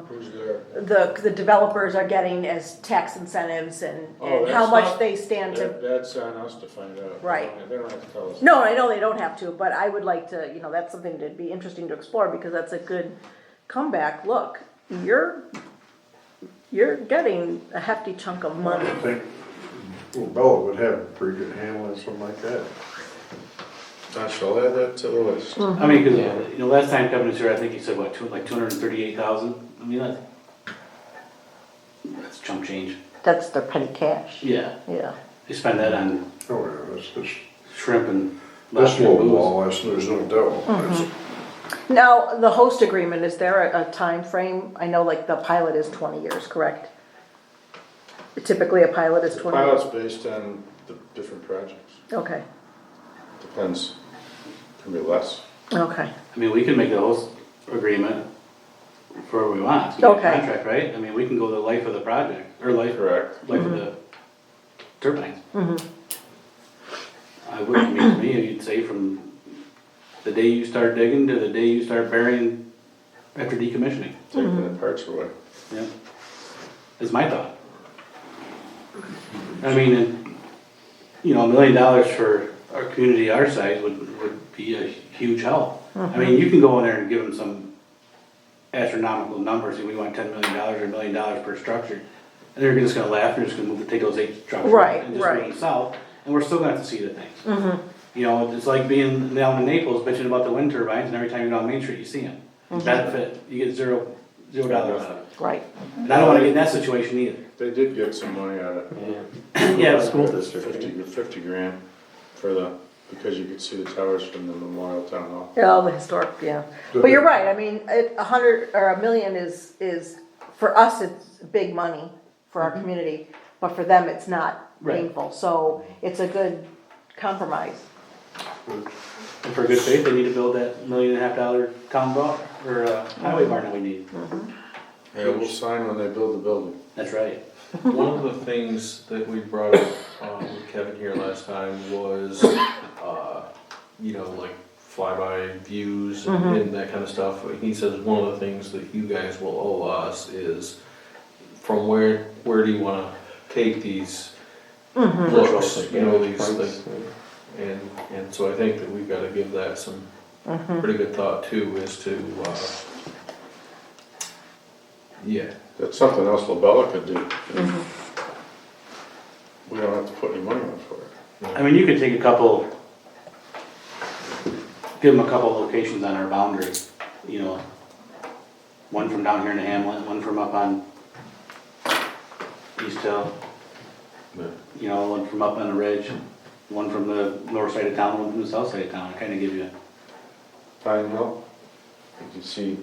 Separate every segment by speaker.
Speaker 1: Who's there?
Speaker 2: the, the developers are getting as tax incentives and,
Speaker 1: Oh,
Speaker 2: and how
Speaker 1: that's
Speaker 2: much
Speaker 1: not-
Speaker 2: they stand
Speaker 1: That-
Speaker 2: to.
Speaker 1: That's on us to find out. They
Speaker 2: Right.
Speaker 1: don't- They don't have to tell us.
Speaker 2: No, I know they don't have to, but I would like to, you know, that's something that'd be interesting to explore because that's a good comeback. Look, you're, you're getting a hefty chunk of money.
Speaker 3: I think Bella would have a pretty good handle on something like that.
Speaker 1: I shall add that to the list.
Speaker 2: Hmm.
Speaker 4: I mean, cause, you know, last time Kevin was here, I think he said, what, two, like two hundred and thirty-eight thousand, I mean, that's. That's chump change,
Speaker 2: That's their petty cash,
Speaker 4: yeah,
Speaker 2: yeah.
Speaker 4: they spend that on
Speaker 3: Oh, yeah, that's just,
Speaker 4: shrimp and
Speaker 3: that's
Speaker 4: lobster and
Speaker 3: low
Speaker 4: booze.
Speaker 3: law, that's, there's no doubt. That's-
Speaker 2: Mm-hmm. Now, the host agreement, is there a, a time frame? I know like the pilot is twenty years, correct? Typically, a pilot is twenty. years.
Speaker 1: Pilot's based on the different projects.
Speaker 2: Okay,
Speaker 1: Depends. Can be less.
Speaker 2: okay.
Speaker 4: I mean, we can make the host agreement for what we want, it's gonna be a
Speaker 2: Okay.
Speaker 4: contract, right? I mean, we can go the life of the project, or life,
Speaker 1: Correct.
Speaker 4: life of the turbines. I would, I mean, to me, you'd say from the day you start digging to the day you start burying after decommissioning.
Speaker 2: Hmm.
Speaker 1: Taking the parts away.
Speaker 4: Yeah, is my thought. I mean, and, you know, a million dollars for our community our size would, would be a huge help. I mean, you can go in there and give them some astronomical numbers, and we want ten million dollars or a million dollars per structure. And they're just gonna laugh, they're just gonna move, take those eight structures
Speaker 2: Right,
Speaker 4: and just move
Speaker 2: right. Mm-hmm.
Speaker 4: them south, and we're still gonna have to see the things. You know, it's like being down in Naples bitching about the wind turbines, and every time you go down Main Street, you see them.
Speaker 2: Mm-hmm.
Speaker 4: Benefit, you get zero, zero dollars out of it.
Speaker 2: Right.
Speaker 4: And I don't wanna get in that situation either.
Speaker 1: They did get some money out of it.
Speaker 4: Yeah, the school
Speaker 1: Fifty, fifty grand for the, because you could see the towers from the Memorial Town Hall.
Speaker 2: Yeah, all the historic, yeah. But you're right, I mean, it, a hundred, or a million is, is, for us, it's big money for our community, but for them, it's not
Speaker 4: Right.
Speaker 2: painful, so it's a good compromise.
Speaker 4: And for good faith, they need to build that million and a half dollar town bar, or uh, highway barn that we need.
Speaker 1: Yeah, we'll sign when they build the building.
Speaker 4: That's right.
Speaker 5: One of the things that we brought up um, with Kevin here last time was, uh, you know, like flyby views and, and that kind of stuff. He says one of the things that you guys will owe us is from where where do you want to take these looks, you know, these things. And and so I think that we've got to give that some pretty good thought too, as to uh, yeah.
Speaker 1: That's something else LaBella could do.
Speaker 2: Mm-hmm.
Speaker 1: We don't have to put any money on for it.
Speaker 4: I mean, you could take a couple, give them a couple locations on our boundary, you know. One from down here in the hamlet, one from up on East Hill, you know, one from up on the ridge, one from the north side of town, one from the south side of town, kind of give you.
Speaker 1: Pine Hill, you can see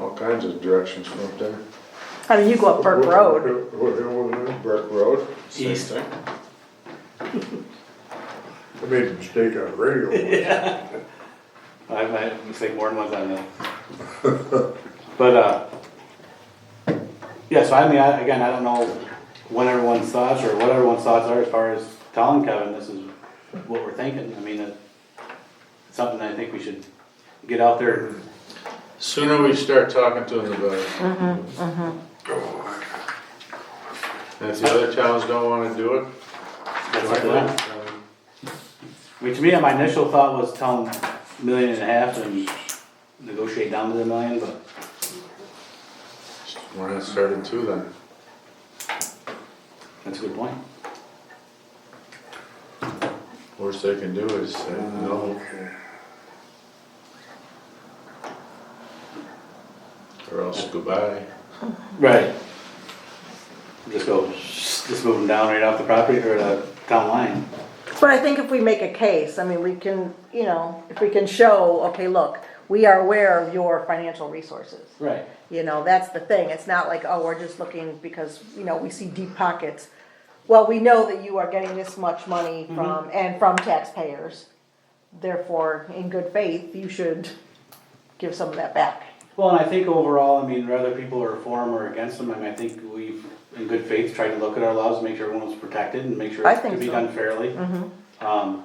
Speaker 1: all kinds of directions from up there.
Speaker 2: I mean, you go up Burke Road,
Speaker 3: What hill was that?
Speaker 1: Burke Road, same
Speaker 4: East.
Speaker 1: thing.
Speaker 3: I made a mistake on the radio. once.
Speaker 4: I've had a mistake more than once on that. But, uh, yeah, so I mean, I, again, I don't know when everyone's thoughts or what everyone's thoughts are as far as telling Kevin this is what we're thinking. I mean, it's something I think we should get out there.
Speaker 1: Sooner we start talking to them about it. And if the other towns don't wanna do it,
Speaker 4: That's
Speaker 1: why
Speaker 4: what I
Speaker 1: not?
Speaker 4: want. I mean, to me, my initial thought was tell him million and a half and negotiate down to the million, but
Speaker 1: We're not starting two then.
Speaker 4: that's a good point.
Speaker 1: Worst they can do is say, no,
Speaker 3: Okay.
Speaker 1: or else goodbye.
Speaker 4: Right. Just go, just move them down right off the property or the town line.
Speaker 2: but I think if we make a case, I mean, we can, you know, if we can show, okay, look, we are aware of your financial resources.
Speaker 4: Right.
Speaker 2: You know, that's the thing, it's not like, oh, we're just looking because, you know, we see deep pockets. Well, we know that you are getting this much money from, and from taxpayers. Therefore, in good faith, you should give some of that back.
Speaker 4: Well, and I think overall, I mean, whether people are for them or against them, I mean, I think we've, in good faith, tried to look at our laws, make sure everyone's protected and make sure
Speaker 2: I
Speaker 4: it
Speaker 2: think
Speaker 4: can be
Speaker 2: so. Mm-hmm.
Speaker 4: done fairly. Um,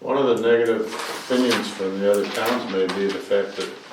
Speaker 1: One of the negative opinions from the other towns may be the fact that